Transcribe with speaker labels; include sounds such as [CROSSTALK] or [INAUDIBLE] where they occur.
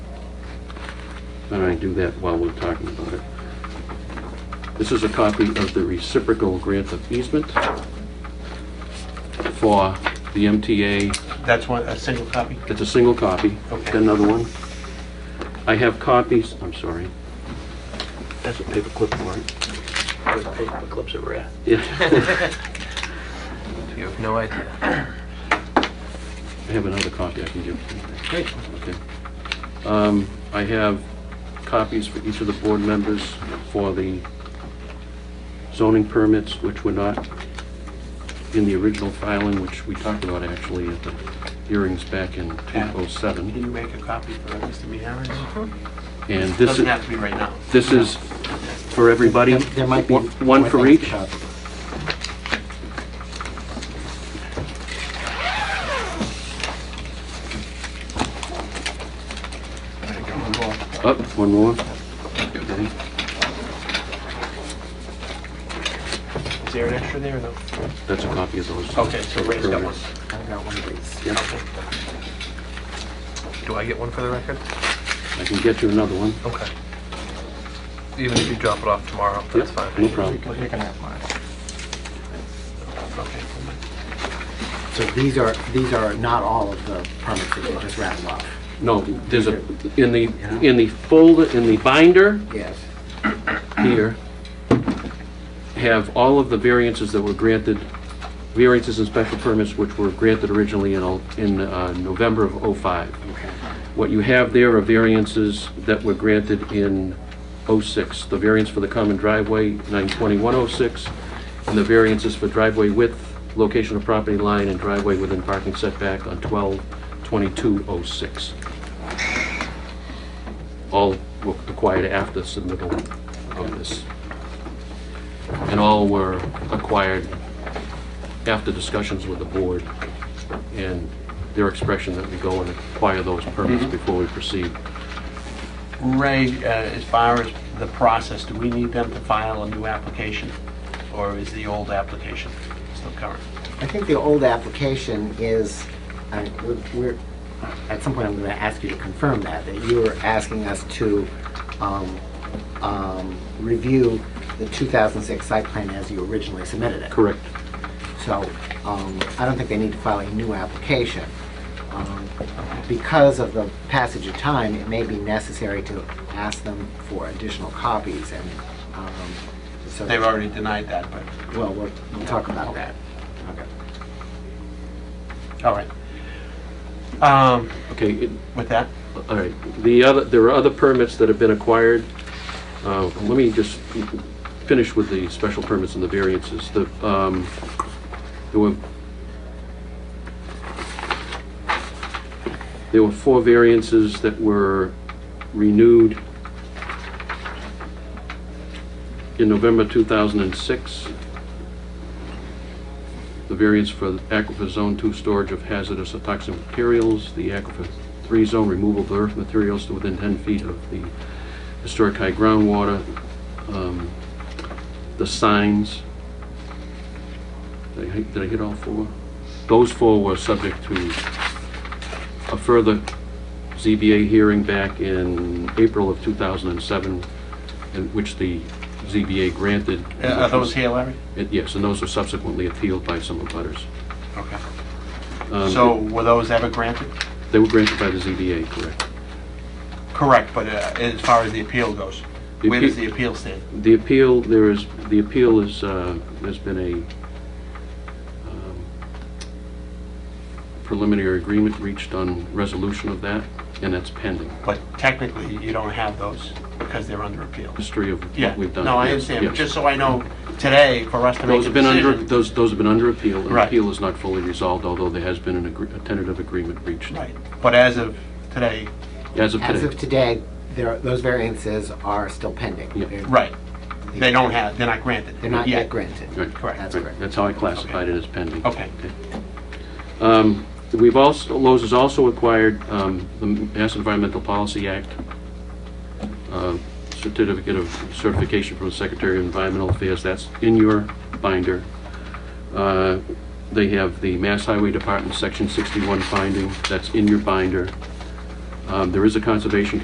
Speaker 1: and I do that while we're talking about it. This is a copy of the reciprocal grant of easement for the MTA
Speaker 2: That's one, a single copy?
Speaker 1: it's a single copy.
Speaker 2: Okay.
Speaker 1: Got Another one. I have copies, I'm sorry. That's a paper clip warrant.
Speaker 3: Those paper clips are rare.
Speaker 1: Yeah, [LAUGHS]
Speaker 3: You have no idea.
Speaker 1: I have another copy I can give to you.
Speaker 3: Great.
Speaker 1: Okay. Um, I have copies for each of the board members for the zoning permits, which were not in the original filing, which we talked about actually at the hearings back in
Speaker 2: Yeah.
Speaker 1: 2007.
Speaker 2: Can you make a copy for Mr. Meharris?
Speaker 1: And this
Speaker 2: Doesn't
Speaker 1: is,
Speaker 2: have to be right now.
Speaker 1: this is for everybody?
Speaker 4: There might be.
Speaker 1: One- One for
Speaker 4: thing to
Speaker 1: each?
Speaker 4: copy.
Speaker 1: Up, Oh, one more. Okay.
Speaker 2: Is there an extra there or no?
Speaker 1: That's a copy of those.
Speaker 2: Okay, so Ray's got one.
Speaker 4: I've got one of these.
Speaker 1: Yeah,
Speaker 3: Do I get one for the record?
Speaker 1: I can get you another one.
Speaker 3: Okay. Even if you drop it off tomorrow, that's
Speaker 1: Yep,
Speaker 3: fine.
Speaker 1: No
Speaker 4: You
Speaker 1: problem.
Speaker 4: can you can have mine.
Speaker 2: Okay.
Speaker 4: So these are, these are not all of the permits that you just rattled off.
Speaker 1: No, there's a, in the, in the folder, in the binder
Speaker 4: Yes.
Speaker 1: here, have all of the variances that were granted, variances and special permits which were granted originally in, uh, in uh, November of '05.
Speaker 4: Okay.
Speaker 1: What you have there are variances that were granted in '06. The variance for the common driveway, 92106, and the variances for driveway width, location of property line, and driveway within parking setback on 122206. All were acquired after submittal of this. And all were acquired after discussions with the board and their expression that we go and acquire those permits before we proceed.
Speaker 2: Ray, uh, as far as the process, do we need them to file a new application? Or is the old application still current?
Speaker 4: I think the old application is, I- we're, at some point, I'm going to ask you to confirm that, that you were asking us to um, um, review the 2006 site plan as you originally submitted it.
Speaker 1: Correct.
Speaker 4: So um, I don't think they need to file a new application. Um, Because of the passage of time, it may be necessary to ask them for additional copies and um, so.
Speaker 2: They've already denied that, but...
Speaker 4: Well, we'll we'll talk about that. Okay.
Speaker 2: All right. Um,
Speaker 1: Okay, it-
Speaker 2: With that,
Speaker 1: all right. The other, there are other permits that have been acquired. Uh, Let me just finish with the special permits and the variances. The, um, there were, there were four variances that were renewed in November 2006. the variance for aquifer zone two storage of hazardous or toxic materials, the aquifer three zone removal of earth materials to within 10 feet of the historic high groundwater, um, the signs. Did I hit- did I hit all four? Those four were subject to a further ZBA hearing back in April of 2007, in which the ZBA granted.
Speaker 2: uh, are those here, Larry?
Speaker 1: It- Yes, and those were subsequently appealed by some abutters.
Speaker 2: Okay.
Speaker 1: Um,
Speaker 2: So were those ever granted?
Speaker 1: They were granted by the ZBA, correct.
Speaker 2: Correct, but uh, as far as the appeal goes,
Speaker 1: The
Speaker 2: where does
Speaker 1: appeal-
Speaker 2: the appeal stand?
Speaker 1: The appeal, there is, the appeal is, uh, there's been a um, preliminary agreement reached on resolution of that, and that's pending.
Speaker 2: But technically, you don't have those because they're under appeal.
Speaker 1: History of
Speaker 2: Yeah,
Speaker 1: what we've done.
Speaker 2: no, I
Speaker 1: Yes,
Speaker 2: understand, but
Speaker 1: yes.
Speaker 2: just so I know today, for us to make
Speaker 1: Those
Speaker 2: a
Speaker 1: have been under,
Speaker 2: decision.
Speaker 1: those, those have been under appeal. and
Speaker 2: Right.
Speaker 1: Appeal is not fully resolved, although there has been an agree- a tentative agreement reached
Speaker 2: Right, but as of today,
Speaker 1: as of
Speaker 4: As of
Speaker 1: today.
Speaker 4: today, there, those variances are still pending.
Speaker 1: Yeah.
Speaker 4: They're-
Speaker 2: right, they don't have, they're not granted.
Speaker 4: They're not yet granted.
Speaker 1: Right,
Speaker 2: Correct.
Speaker 4: That's
Speaker 1: right.
Speaker 4: correct.
Speaker 1: That's how I classified it as pending.
Speaker 2: Okay,
Speaker 1: Um, We've also, Lowe's has also acquired um, the Mass Environmental Policy Act, uh, certificate of certification from the Secretary of Environmental Affairs, that's in your binder. Uh, They have the Mass Highway Department Section 61 finding, that's in your binder. Um, There is a Conservation